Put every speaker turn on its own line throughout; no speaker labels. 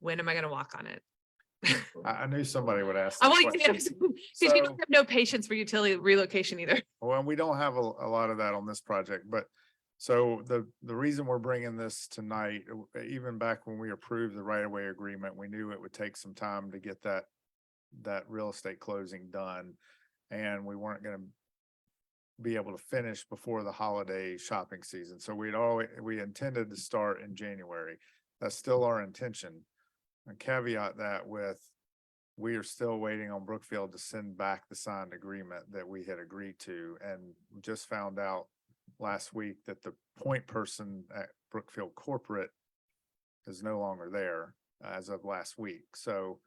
When am I gonna walk on it?
I, I knew somebody would ask.
I
that
want,
question.
because we
So-
don't have no patience for utility relocation either.
Well, and we don't have a, a lot of that on this project, but so the, the reason we're bringing this tonight, uh, w- even back when we approved the right of way agreement, we knew it would take some time to get that, that real estate closing done. And we weren't gonna be able to finish before the holiday shopping season. So we'd always, we intended to start in January. That's still our intention. And caveat that with, we are still waiting on Brookfield to send back the signed agreement that we had agreed to and just found out last week that the point person at Brookfield Corporate is no longer there as of last week. So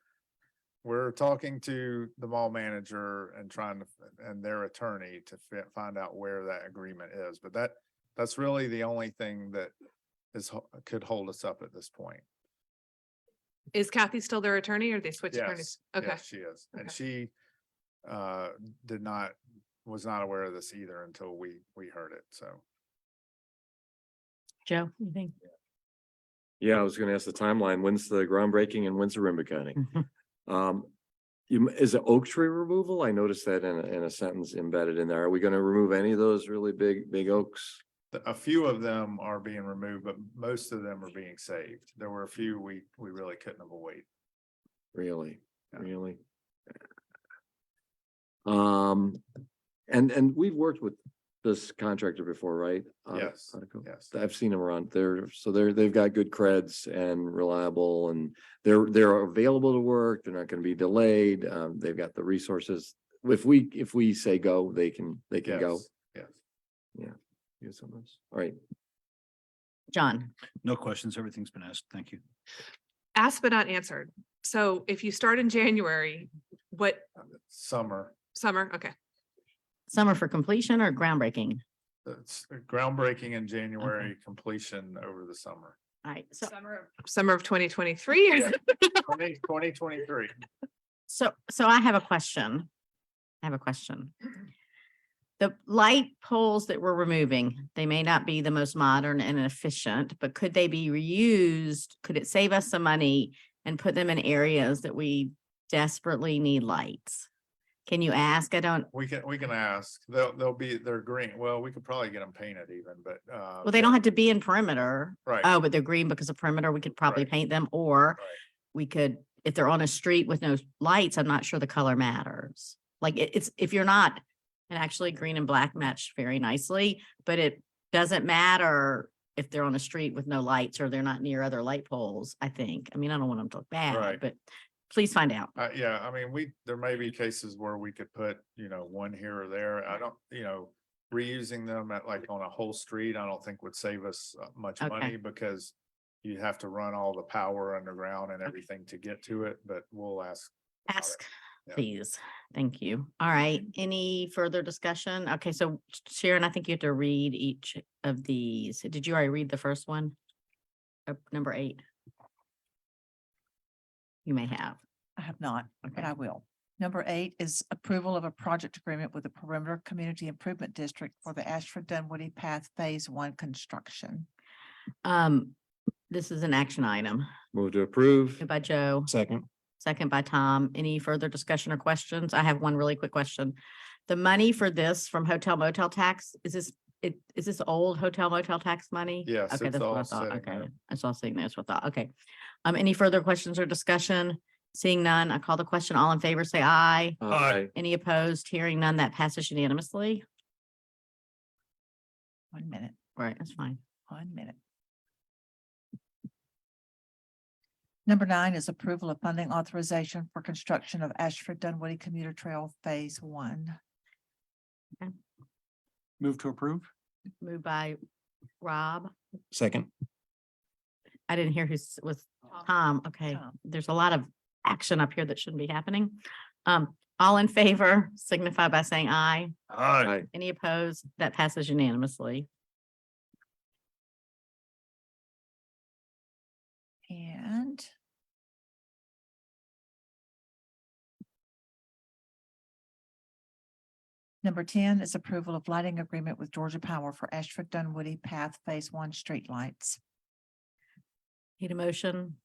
we're talking to the mall manager and trying to, and their attorney to fi- find out where that agreement is. But that, that's really the only thing that is, ho- could hold us up at this point.
Is Kathy still their attorney or they switched attorneys? Okay,
Yes, She is, and
Okay.
she uh did not, was not aware of this either until we, we heard it, so.
Joe, you think?
Yeah, I was gonna ask the timeline. When's the groundbreaking and when's the ribbon cutting?
Mm-hmm.
Um, you, m- is it oak tree removal? I noticed that in, a- in a sentence embedded in there. Are we gonna remove any of those really big, big oaks?
the- A few of them are being removed, but most of them are being saved. There were a few we, we really couldn't avoid.
Really,
Yeah.
really? Um, and, and we've worked with this contractor before, right? Uh, Out-
Yes,
out of Co-
Yes,
I've seen them around there, so they're, they've got good creds and reliable and they're, they're available to work, they're not gonna be delayed, um, they've got the resources. If we, if we say go, they can, they can go.
yes, yes.
Use some of those. All right,
John,
No questions. Everything's been asked. Thank you.
asked but not answered. So if you start in January, what,
Summer,
summer? Okay,
summer for completion or groundbreaking?
it's uh, groundbreaking in January, completion over the summer.
All right, so,
summer of twenty twenty-three.
Twenty, twenty twenty-three.
so, so I have a question. I have a question. The light poles that we're removing, they may not be the most modern and efficient, but could they be reused? Could it save us some money and put them in areas that we desperately need lights? Can you ask? I don't,
We can, we can ask. They'll, they'll be, they're green. Well, we could probably get them painted even, but uh.
well, they don't have to be in perimeter.
Right.
Oh, but they're green because of perimeter, we could probably
Right.
paint them, or
Right.
we could, if they're on a street with no lights, I'm not sure the color matters. Like it- it's, if you're not, and actually green and black match very nicely, but it doesn't matter if they're on a street with no lights or they're not near other light poles, I think. I mean, I don't want them to look
Right.
bad, but please find out.
Uh, yeah, I mean, we, there may be cases where we could put, you know, one here or there. I don't, you know, reusing them at like on a whole street, I don't think would save us uh, much
Okay.
money because you have to run all the power underground and everything to get to it, but we'll ask. about it.
Ask,
Yeah.
please. Thank you. All right, any further discussion? Okay, so Sharon, I think you have to read each of these. Did you already read the first one? Uh, Number eight? You may have.
I have not, but
Okay.
I will. Number eight is approval of a project agreement with the Perimeter Community Improvement District for the Ashford Dunwoody Path Phase One construction.
Um, this is an action item
move to approve.
Moved by Joe,
Second.
second by Tom. Any further discussion or questions? I have one really quick question. The money for this from hotel motel tax, is this, it, is this old hotel motel tax money?
Yes,
Okay,
it's
that's what I
all
thought.
sitting
Okay,
there.
that's all sitting there. That's what I thought. Okay. Um, any further questions or discussion? Seeing none, I call the question. All in favor, say aye.
Aye.
Any opposed? Hearing none, that passes unanimously.
One minute,
Right, that's fine.
one minute. Number nine is approval of funding authorization for construction of Ashford Dunwoody Commuter Trail Phase One.
Move to approve.
Moved by Rob.
Second.
I didn't hear who s- was Tom. Okay,
Tom.
there's a lot of action up here that shouldn't be happening. Um, all in favor signify by saying aye.
Aye.
Any opposed? That passes unanimously.
And number ten is approval of lighting agreement with Georgia Power for Ashford Dunwoody Path Phase One streetlights.
Need a motion?